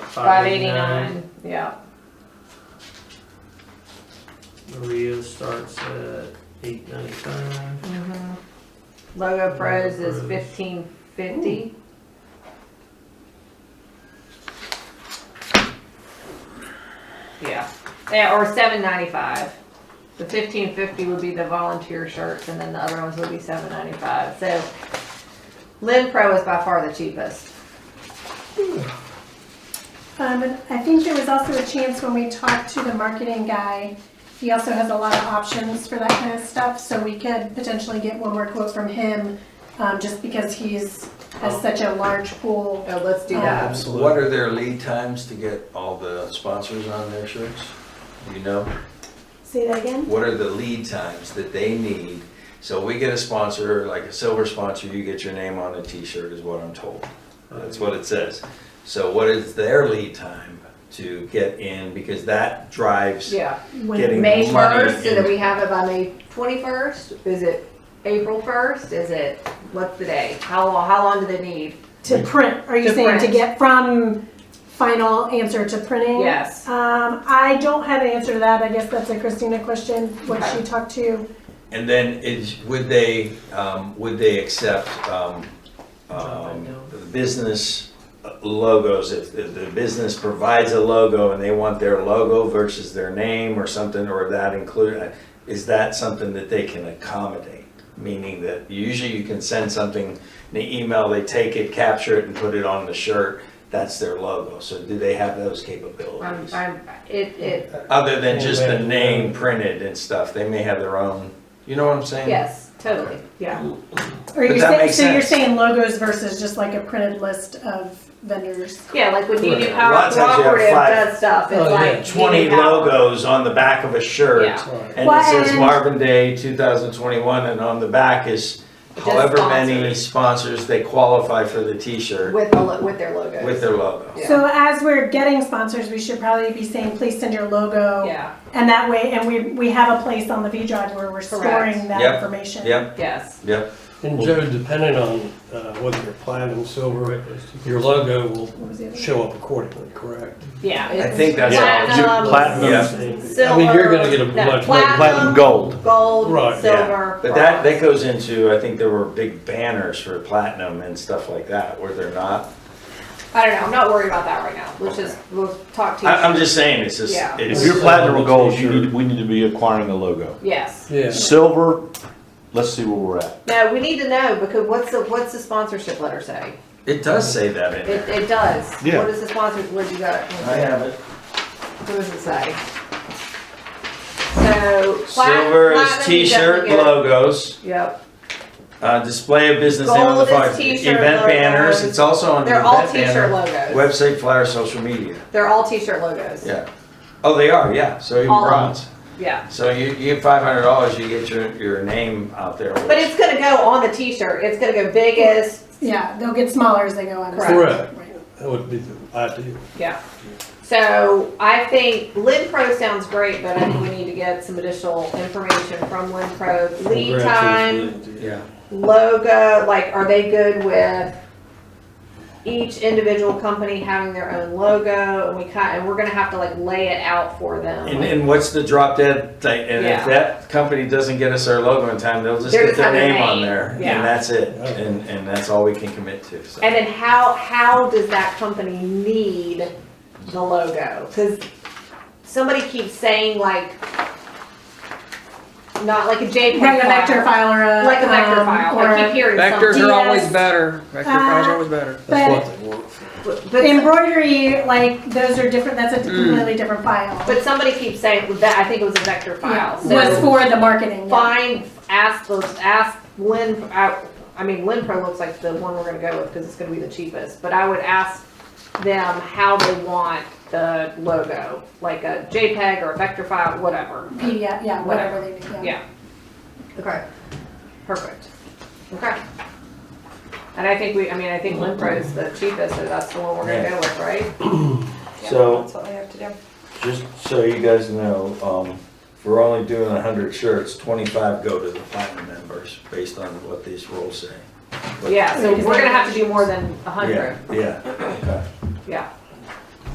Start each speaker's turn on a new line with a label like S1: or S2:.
S1: five eighty-nine, yeah,
S2: Maria starts at eight ninety-five.
S1: mhm. Logo Pros is
S2: Pros.
S1: fifteen fifty. Yeah, yeah, or seven ninety-five. The fifteen fifty would be the volunteer shirts, and then the other ones would be seven ninety-five, so Lynn Pro is by far the cheapest.
S3: Um, and I think there was also a chance when we talked to the marketing guy, he also has a lot of options for that kind of stuff, so we could potentially get one more quote from him, um, just because he's, has
S4: Oh.
S3: such a large pool.
S1: Oh, let's do
S3: that.
S4: What are their lead times to get all the sponsors on their shirts? Do you know?
S3: Say that again?
S4: What are the lead times that they need? So we get a sponsor, like a silver sponsor, you get your name on a t-shirt is what I'm told. That's what it says. So what is their lead time to get in? Because that drives
S1: Yeah.
S4: getting money.
S1: May first, so that
S4: in.
S1: we have it by May twenty-first? Is it April first? Is it, what's the day? How long, how long do they need?
S3: To print, are you
S1: To
S3: saying to
S1: print.
S3: get from final answer to printing?
S1: Yes.
S3: Um, I don't have an answer to that, I guess that's a Christina question, what
S1: Okay.
S3: she talked to.
S4: And then is, would they, um, would they accept, um, um, business logos? If, if the business provides a logo and they want their logo versus their name or something, or that include, uh, is that something that they can accommodate? Meaning that usually you can send something, in the email, they take it, capture it and put it on the shirt. That's their logo. So do they have those
S1: I'm,
S4: capabilities?
S1: I'm, Um, it, it,
S4: Other than just the name printed and stuff, they may have their own, you know what I'm saying?
S1: yes, totally, yeah.
S3: Or
S4: But
S3: you're
S4: that
S3: saying,
S4: makes
S3: so you're
S4: sense.
S3: saying logos versus just like a printed list of vendors?
S1: Yeah, like when Union
S4: Right.
S1: Power
S4: Lots of times you have
S1: Cooperative
S4: five-
S1: does stuff,
S2: Oh,
S1: it's
S2: yeah,
S1: like.
S4: 20
S1: Union Power.
S4: logos on the back of a shirt.
S1: Yeah.
S2: Right.
S4: And
S3: Well,
S4: it says
S3: and-
S4: Marvin Day 2021, and on the back is
S1: Just
S4: however many sponsors they qualify for the T-shirt
S1: With, the lo- with their logos.
S4: with their logo.
S1: Yeah.
S3: So as we're getting sponsors, we should probably be saying, please send your logo.
S1: Yeah,
S3: And that way, and we, we have a place on the V drive where we're
S1: Correct.
S3: storing that
S4: Yep.
S3: information.
S4: Yep,
S1: yes,
S4: yep.
S2: And Joe, depending on uh, whether you're platinum, silver, your logo will
S3: What was the other?
S2: show up accordingly, correct?
S1: yeah.
S4: I
S1: it's
S4: think that's
S1: platinum,
S4: how. Yeah.
S2: I mean, you're gonna
S1: silver,
S2: get a
S1: no,
S2: much.
S1: platinum,
S5: gold.
S1: Gold,
S2: Right, yeah.
S1: silver.
S4: But that, that
S1: bronze.
S4: goes into, I think there were big banners for platinum and stuff like that, were there not?
S1: I don't know, I'm not worried about that right now, let's just, we'll talk to you.
S4: I, I'm just saying, it's just,
S1: Yeah.
S5: If
S4: it's.
S5: you're platinum or gold, you need, we need to be acquiring a logo.
S1: Yes.
S2: Yeah.
S5: Silver, let's see where we're at.
S1: No, we need to know because what's the what's the sponsorship letter say?
S4: It does say that in
S1: It,
S4: there.
S1: it does.
S5: Yeah.
S1: What is the sponsor? What do you got?
S4: I have it.
S1: What does it say? So plat-
S4: Silver is
S1: platinum, you
S4: T-shirt
S1: definitely get-
S4: logos.
S1: Yep.
S4: Uh, display of business name on the
S1: Gold is
S4: flyer,
S1: t-shirt
S4: event banners,
S1: logos.
S4: it's also on the
S1: They're all
S4: event
S1: T-shirt
S4: Um, banner.
S1: logos.
S4: Website, flyer, social media,
S1: They're all T-shirt logos.
S4: yeah. Oh, they are, yeah, so even
S1: All of them.
S4: bronze.
S1: Yeah.
S4: So you, you get five hundred dollars, you get your, your name out there.
S1: But it's gonna go on the T-shirt. It's gonna go biggest.
S3: Yeah, they'll get smaller as they go on.
S1: Correct.
S2: Correct,
S3: Right.
S2: that would be the ideal.
S1: Yeah. So I think Lynn Pro sounds great, but I think we need to get some additional information from Lynn Pro. Lead
S2: Congrats,
S1: time.
S2: Lindsay.
S4: Yeah,
S1: logo, like, are they good with each individual company having their own logo? And we kind, and we're gonna have to like lay it out for them.
S4: and, and what's the drop dead, thing? and
S1: Yeah.
S4: if that company doesn't get us our logo in time, they'll just
S1: They're just
S4: get their
S1: having a
S4: name on
S1: name,
S4: there. And
S1: yeah.
S4: that's it, and, and that's all we can commit to, so.
S1: And then how, how does that company need the logo? Cause somebody keeps saying like, not like a JPEG
S3: Like a vector
S1: file,
S3: file or a.
S1: like a vector
S3: um,
S1: file,
S3: or
S1: I keep hearing
S6: Vectors
S1: something.
S3: Do you
S6: are always
S3: guys-
S6: better. Vector files are always better.
S2: That's what they want.
S1: But-
S3: But
S1: But,
S3: embroidery, like, those are different, that's a
S1: Mm.
S3: completely different file.
S1: but somebody keeps saying, that, I think it was a vector
S3: Yeah,
S1: file, so.
S3: Was for the marketing. yeah.
S1: find, ask the, ask Lynn, I, I mean, Lynn Pro looks like the one we're gonna go with, cause it's gonna be the cheapest, but I would ask them how they want the logo, like a JPEG or a vector file, whatever.
S3: PDF, yeah, whatever they do, yeah.
S1: Yeah. Okay. Perfect. Okay. And I think we, I mean, I think Lynn Pro is the cheapest, so that's the one we're gonna go with, right?
S4: So-
S1: That's what I have to do.
S4: Just so you guys know, um, if we're only doing a hundred shirts, twenty-five go to the platinum members, based on what these rules say.
S1: Yeah, so we're gonna have to do more than a hundred,
S4: Yeah, yeah, okay.
S1: yeah.